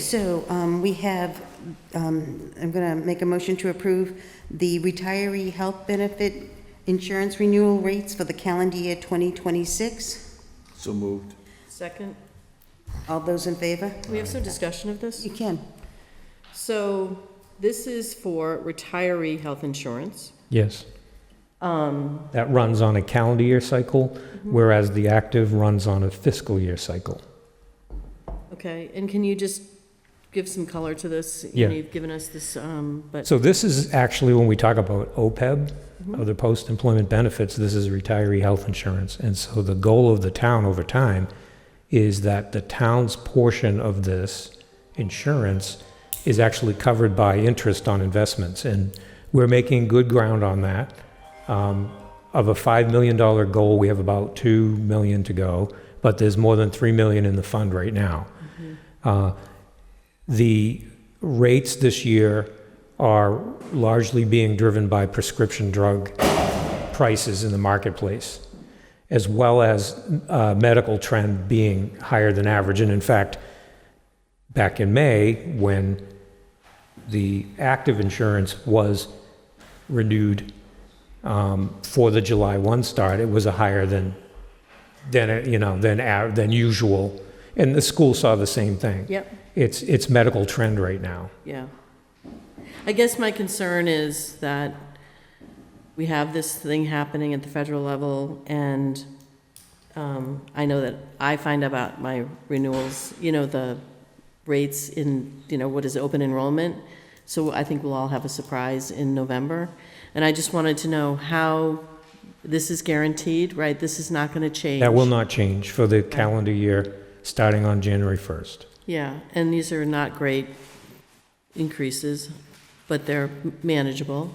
So um, we have, um, I'm going to make a motion to approve the retiree health benefit insurance renewal rates for the calendar year 2026. So moved. Second, All those in favor? we have some discussion of this? You can. So this is for retiree health insurance. Yes. Um, That runs on a calendar year cycle, whereas the active runs on a fiscal year cycle. Okay, and can you just give some color to this? You Yeah. know, You've given us this, um, but, So this is actually when we talk about OPEB, other post-employment benefits, this is retiree health insurance. And so the goal of the town over time is that the town's portion of this insurance is actually covered by interest on investments. And we're making good ground on that. Um, of a $5 million goal, we have about 2 million to go, but there's more than 3 million in the fund right now. Uh, The rates this year are largely being driven by prescription drug prices in the marketplace, as well as uh, medical trend being higher than average. And in fact, back in May, when the active insurance was renewed um, for the July 1 start, it was a higher than, than, uh, you know, than, a- than usual. And the school saw the same thing. yep, It's, it's medical trend right now. yeah. I guess my concern is that we have this thing happening at the federal level, and um, I know that I find about my renewals, you know, the rates in, you know, what is open enrollment. So I think we'll all have a surprise in November. And I just wanted to know how this is guaranteed, right? This is not going to change. That will not change for the calendar year, starting on January 1st. Yeah, and these are not great increases, but they're manageable,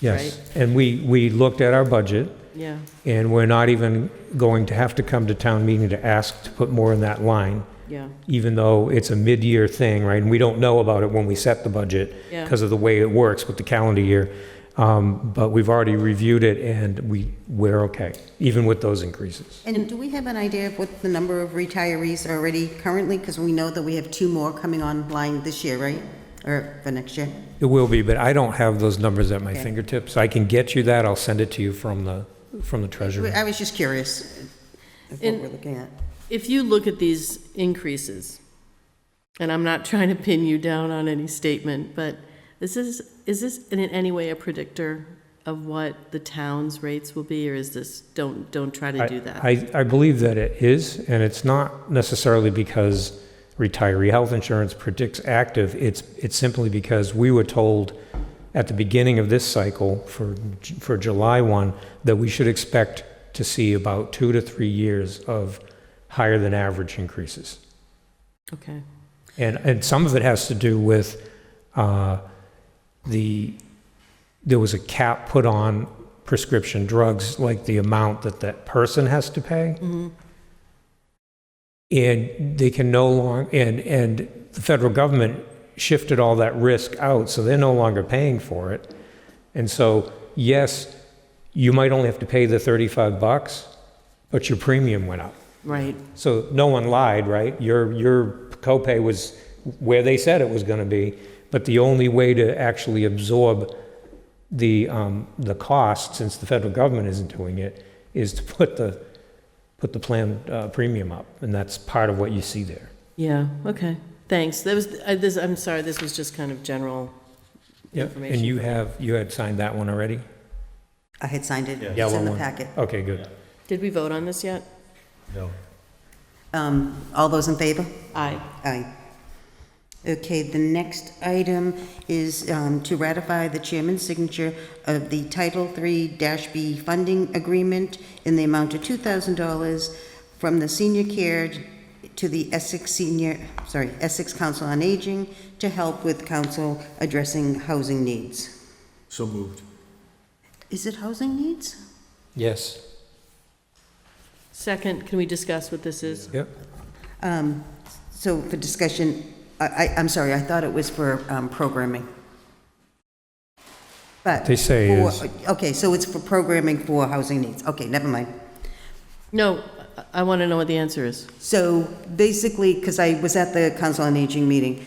Yes. And we, we looked at our budget, yeah. and we're not even going to have to come to town meeting to ask to put more in that line, Yeah, even though it's a mid-year thing, right? And we don't know about it when we set the budget Yeah. because of the way it works with the calendar year. Um, But we've already reviewed it, and we, we're okay, even with those increases. And do we have an idea of what the number of retirees are already currently? Because we know that we have two more coming online this year, right? Or for next year? It will be, but I don't have those numbers at my Okay. fingertips. I can get you that. I'll send it to you from the, from the treasurer. I was just curious of what And- we're looking at. if you look at these increases, and I'm not trying to pin you down on any statement, but this is, is this in any way a predictor of what the town's rates will be, or is this, don't, don't try to I- do that? I, I believe that it is, and it's not necessarily because retiree health insurance predicts active. It's, it's simply because we were told at the beginning of this cycle for, J- for July 1, that we should expect to see about two to three years of higher than average increases. Okay, And, and some of it has to do with uh, the, there was a cap put on prescription drugs, like the amount that that person has to pay. And they can no longer, and, and the federal government shifted all that risk out, so they're no longer paying for it. And so, yes, you might only have to pay the 35 bucks, but your premium went up. right, So no one lied, right? Your, your copay was where they said it was going to be, but the only way to actually absorb the, um, the cost, since the federal government isn't doing it, is to put the, put the plan uh, premium up, and that's part of what you see there. yeah, okay, thanks. That was, I, this, I'm sorry, this was just kind of general information. And you have, you had signed that one already? I had signed it. It's Yellow in the one. packet. Okay, good. Did we vote on this yet? No. Um, All those in favor? Aye. Aye. Okay, the next item is um, to ratify the chairman's signature of the Title III-B funding agreement in the amount of $2,000 from the senior care to the Essex Senior, sorry, Essex Council on Aging to help with council addressing housing needs. So moved. Is it housing needs? Yes. Second, can we discuss what this is? Yep. Um, So for discussion, I, I- I'm sorry, I thought it was for um, programming. But. They say for- is- Okay, so it's for programming for housing needs. Okay, never mind. No, I- I want to know what the answer is. So basically, because I was at the Council on Aging meeting,